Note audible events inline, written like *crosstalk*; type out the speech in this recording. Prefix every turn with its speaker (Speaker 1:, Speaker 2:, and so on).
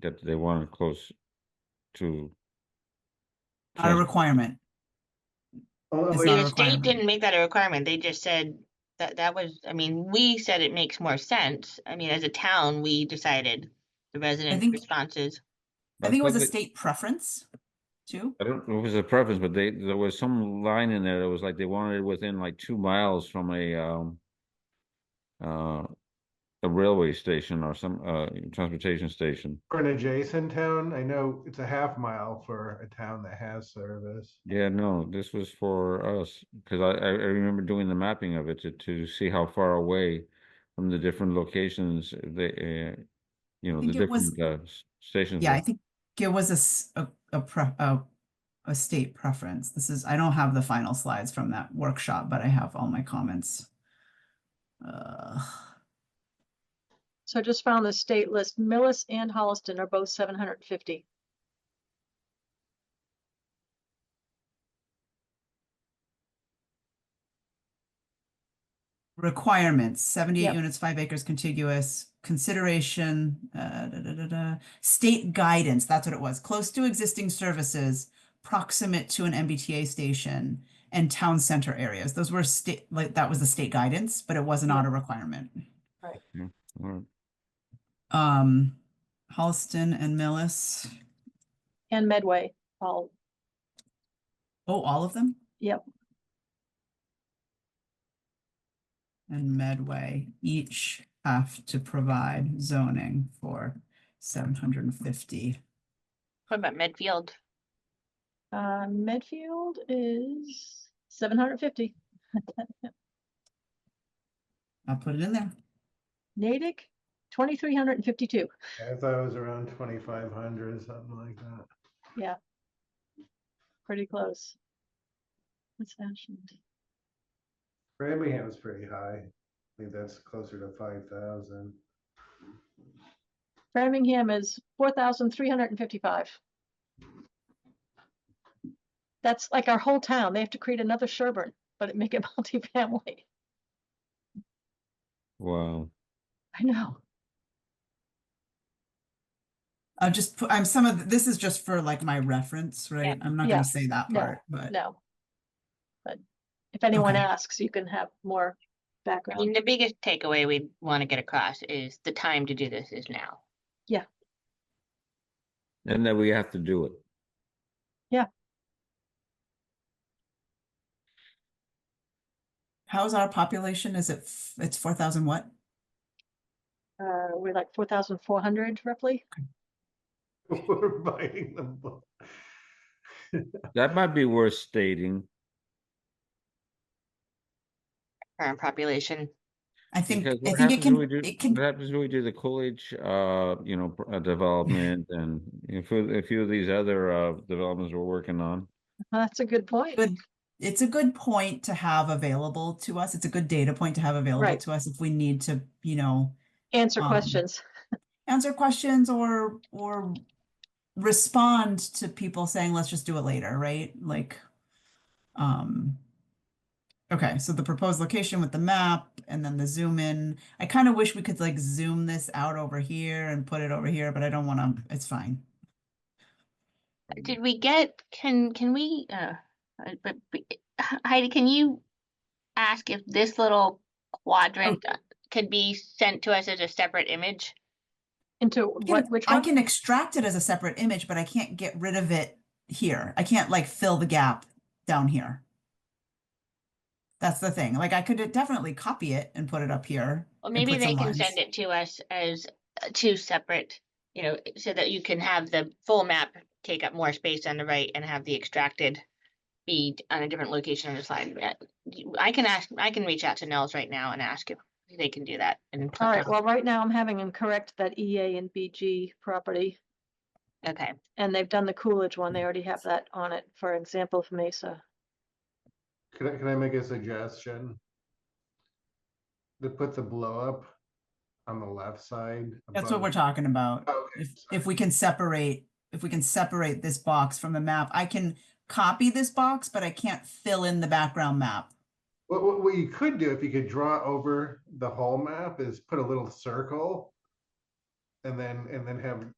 Speaker 1: that they want to close to.
Speaker 2: Not a requirement.
Speaker 3: Oh,
Speaker 2: It's
Speaker 3: wait,
Speaker 2: not
Speaker 4: The
Speaker 2: a
Speaker 4: state
Speaker 2: requirement.
Speaker 4: didn't make that a requirement. They just said that that was, I mean, we said it makes more sense. I mean, as a town, we decided the resident
Speaker 2: think-
Speaker 4: responses.
Speaker 2: I think it was
Speaker 1: But
Speaker 2: a
Speaker 1: they-
Speaker 2: state preference too.
Speaker 1: I don't know if it was a preference, but they, there was some line in there that was like they wanted it within like two miles from a, um. Uh, a railway station or some, uh, transportation station.
Speaker 3: for an adjacent town, I know it's a half mile for a town that has service.
Speaker 1: Yeah, no, this was for us, because I, I I remember doing the mapping of it to, to see how far away from the different locations they, uh, you know, the
Speaker 2: think it was-
Speaker 1: different, uh, s- stations.
Speaker 2: Yeah, I
Speaker 1: were.
Speaker 2: think it was a, s- a, a pre, a, a state preference. This is, I don't have the final slides from that workshop, but I have all my comments. Uh,
Speaker 5: So I just found the state list. Millis and Holliston are both seven hundred and fifty.
Speaker 2: requirements, seventy-eight
Speaker 5: Yep.
Speaker 2: units, five acres contiguous, consideration, uh, da, da, da, da. State guidance, that's what it was, close to existing services, proximate to an MBTA station and town center areas. Those were state, like, that was the state guidance, but it was not a requirement.
Speaker 1: All right.
Speaker 2: Um, Holliston and Millis.
Speaker 5: And Medway, all,
Speaker 2: Oh, all of them?
Speaker 5: Yep.
Speaker 2: And Medway each have to provide zoning for seven hundred and fifty.
Speaker 4: What about Medfield?
Speaker 5: uh, Medfield is seven hundred and fifty.
Speaker 2: I'll put it in there.
Speaker 5: Natick, twenty-three hundred and fifty-two.
Speaker 3: I thought it was around twenty-five hundred, something like that.
Speaker 5: Pretty close. What's Ashland?
Speaker 3: Birmingham's pretty high. I think that's closer to five thousand. *laughs*
Speaker 5: Framingham is four thousand three hundred and fifty-five. That's like our whole town. They have to create another Sherburne, but it make it *laughs* multifamily.
Speaker 1: Wow.
Speaker 5: I know.
Speaker 2: I'll just put, I'm some of, th- this is just for like my reference, right? I'm not
Speaker 5: yeah,
Speaker 2: gonna say that
Speaker 5: no,
Speaker 2: part, but
Speaker 5: No. But if anyone
Speaker 2: Okay.
Speaker 5: asks, you can have more
Speaker 4: I mean,
Speaker 5: background.
Speaker 4: the biggest takeaway we want to get across is the time to do this is now.
Speaker 1: And that we have to do it.
Speaker 2: how's our population? Is it, f- it's four thousand what?
Speaker 5: Uh, we're like four thousand four hundred roughly.
Speaker 3: We're biting them. both.
Speaker 1: That might be worth stating.
Speaker 4: Current population.
Speaker 2: I think,
Speaker 1: Because
Speaker 2: I
Speaker 1: what
Speaker 2: think it
Speaker 1: happens when
Speaker 2: can,
Speaker 1: we do-
Speaker 2: it can,
Speaker 1: What happens when we do the Coolidge, uh, you know,
Speaker 2: *laughs*
Speaker 1: pr- uh, development and a few, a few of these other, uh, developments we're working on?
Speaker 5: Well, Uh, That's a good point.
Speaker 2: Good. it's a good point to have available to us. It's a good data point to have available
Speaker 5: Right.
Speaker 2: to us if we need to, you know,
Speaker 5: Answer
Speaker 2: Um,
Speaker 5: questions.
Speaker 2: answer questions or or respond to people saying let's just do it later right like um okay so the proposed location with the map and then the zoom in i kind of wish we could like zoom this out over here and put it over here but i don't want to it's fine
Speaker 4: Did we get, can, can we, uh, uh, but, but- Heidi, can you ask if this little quadrant uh, could be sent to us as a separate image?
Speaker 5: Into
Speaker 2: I can-
Speaker 5: what, which
Speaker 2: i
Speaker 5: one?
Speaker 2: can extract it as a separate image but i can't get rid of it here i can't like fill the gap down here that's the thing like i could definitely copy it and put it up here
Speaker 4: Well,
Speaker 2: and
Speaker 4: maybe
Speaker 2: put
Speaker 4: they
Speaker 2: some
Speaker 4: can
Speaker 2: lines.
Speaker 4: send it to us as uh, two separate, you know, so that you can have the full map take up more space on the right and have the extracted be on a different location on the slide. Uh, you- I can ask, I can reach out to Nels right now and ask if they can do that. and put
Speaker 5: All right,
Speaker 4: that-
Speaker 5: well, right now I'm having them correct that EA and BG property.
Speaker 4: Okay,
Speaker 5: And they've done the Coolidge one.
Speaker 2: Mm.
Speaker 5: They already have that on it for example for Mesa.
Speaker 3: Can I, can I make a suggestion? To put the blow up on the left side.
Speaker 2: That's what
Speaker 3: above-
Speaker 2: we're talking about.
Speaker 3: Okay,
Speaker 2: If, if we can separate, if we can separate this box from the map, I can copy this box, but I can't fill in the background map.
Speaker 3: What, what, what you could do, if you could draw over the whole map, is put a little circle. And then, and then have